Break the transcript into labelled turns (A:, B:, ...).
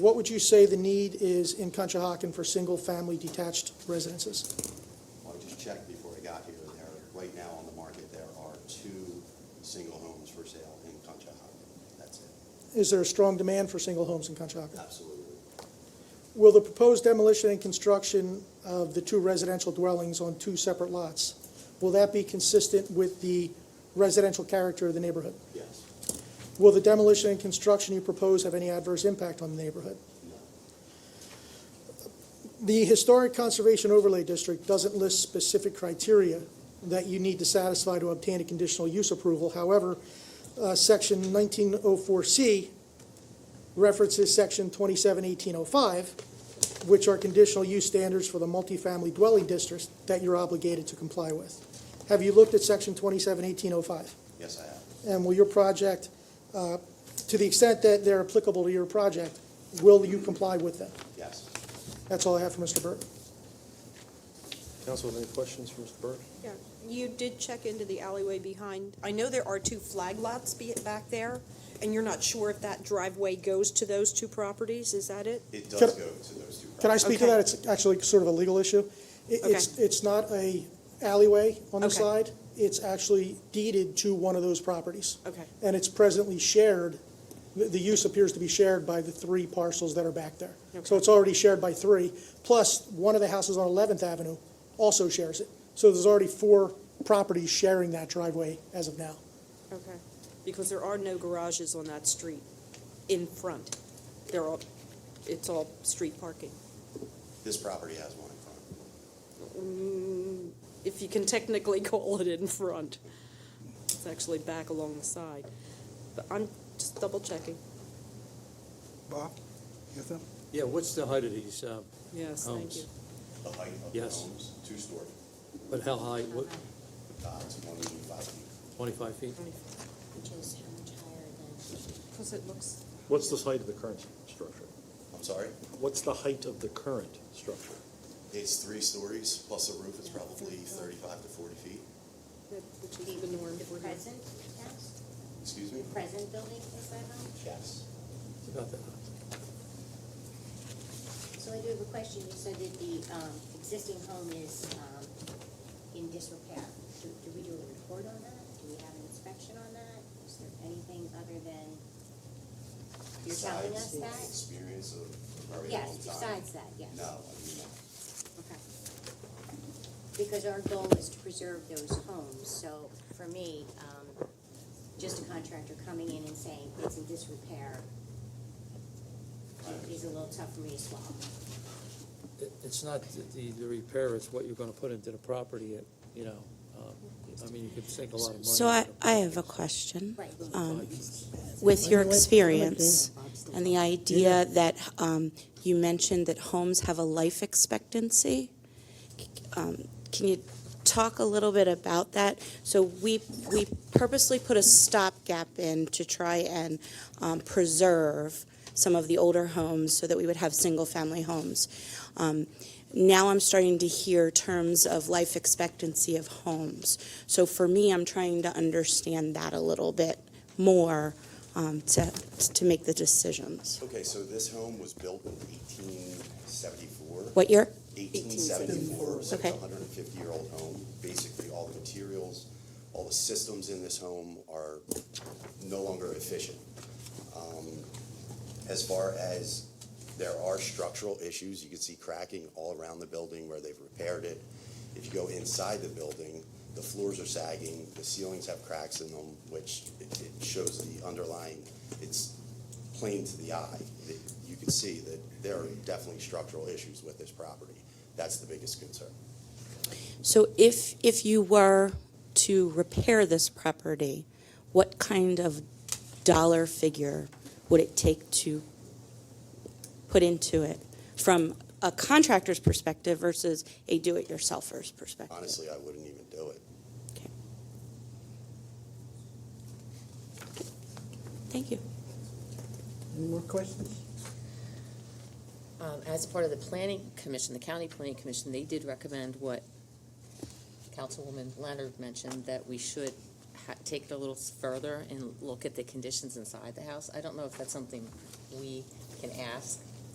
A: What would you say the need is in Conshohocken for single-family detached residences?
B: Well, I just checked before I got here, and there, right now on the market, there are two single homes for sale in Conshohocken. That's it.
A: Is there a strong demand for single homes in Conshohocken?
B: Absolutely.
A: Will the proposed demolition and construction of the two residential dwellings on two separate lots, will that be consistent with the residential character of the neighborhood?
B: Yes.
A: Will the demolition and construction you propose have any adverse impact on the neighborhood?
B: No.
A: The Historic Conservation Overlay District doesn't list specific criteria that you need to satisfy to obtain a conditional use approval. However, uh, Section 1904C references Section 271805, which are conditional use standards for the multifamily dwelling districts that you're obligated to comply with. Have you looked at Section 271805?
B: Yes, I have.
A: And will your project, uh, to the extent that they're applicable to your project, will you comply with them?
B: Yes.
A: That's all I have for Mr. Burke.
C: Council, any questions for Mr. Burke?
D: Yeah, you did check into the alleyway behind, I know there are two flag lots be- back there, and you're not sure if that driveway goes to those two properties, is that it?
B: It
A: Can
B: does
A: I-
B: go to those two properties.
A: Can I speak to
D: Okay.
A: that? It's actually sort of a legal issue. It- It's,
D: Okay.
A: it's not a alleyway on the
D: Okay.
A: side. It's actually deeded to one of those properties.
D: Okay.
A: And it's presently shared, the, the use appears to be shared by the three parcels that are back there. So
D: Okay.
A: it's already shared by three, plus one of the houses on Eleventh Avenue also shares it. So there's already four properties sharing that driveway as of now.
D: Okay. Because there are no garages on that street in front. They're all, it's all street parking.
B: This property has one in front.
D: Mm, If you can technically call it in front. It's actually back along the side. But I'm just double checking,
E: Bob, you have them?
F: Yeah, what's the height of these? uh,
D: yes, thank you.
F: Homes.
B: The height of the
F: Yes.
B: homes, two-story,
F: But how high? What,
B: uh, it's one eighty-five feet.
F: 25 feet?
G: Which is how much higher than,
D: Because it looks,
C: What's the height of the current structure?
B: I'm sorry?
C: What's the height of the current structure?
B: It's three stories, plus a roof, it's probably thirty-five to forty feet.
D: which is the norm
G: the
D: for here.
G: present house?
B: Excuse me?
G: The present building is that high?
B: Yes.
F: It's about that high.
G: So I do have a question, you said that the, um, existing home is, um, in disrepair. Do, do we do a report on that? Do we have an inspection on that? Is there anything other than, you're telling
B: Besides
G: us
B: the
G: that?
B: Experience of a very long
G: Yes,
B: time.
G: besides that, yes.
B: No, I mean, no.
G: Okay. Because our goal is to preserve those homes, so for me, um, just a contractor coming in and saying it's in disrepair is a little tough for me to swallow.
F: It- It's not the- the, the repair, it's what you're gonna put into the property, it- you know. um, I mean, you could sink a lot of money.
H: So I,
F: into the
H: I have a
F: property.
H: question.
G: Right.
H: Um, With your experience and the idea that um, you mentioned that homes have a life expectancy, um, can you talk a little bit about that? So we, we purposely put a stopgap in to try and um, preserve some of the older homes so that we would have single-family homes. Um, Now I'm starting to hear terms of life expectancy of homes. So for me, I'm trying to understand that a little bit more um, to, to make the decisions.
B: Okay, so this home was built in eighteen seventy-four.
H: What year?
B: 1874, so it's a
H: Okay.
B: 150-year-old home. Basically, all the materials, all the systems in this home are no longer efficient. Um, As far as there are structural issues, you can see cracking all around the building where they've repaired it. If you go inside the building, the floors are sagging, the ceilings have cracks in them, which it it shows the underlying, it's plain to the eye, that you can see that there are definitely structural issues with this property. That's the biggest concern.
H: So if, if you were to repair this property, what kind of dollar figure would it take to put into it from a contractor's perspective versus a do-it-yourselfer's perspective?
B: Honestly, I wouldn't even do it.
H: Okay. Thank you.
E: Any more questions?
I: Um, as part of the planning commission, the county planning commission, they did recommend what Councilwoman Leonard mentioned, that we should ha- take it a little further and look at the conditions inside the house. I don't know if that's something we can ask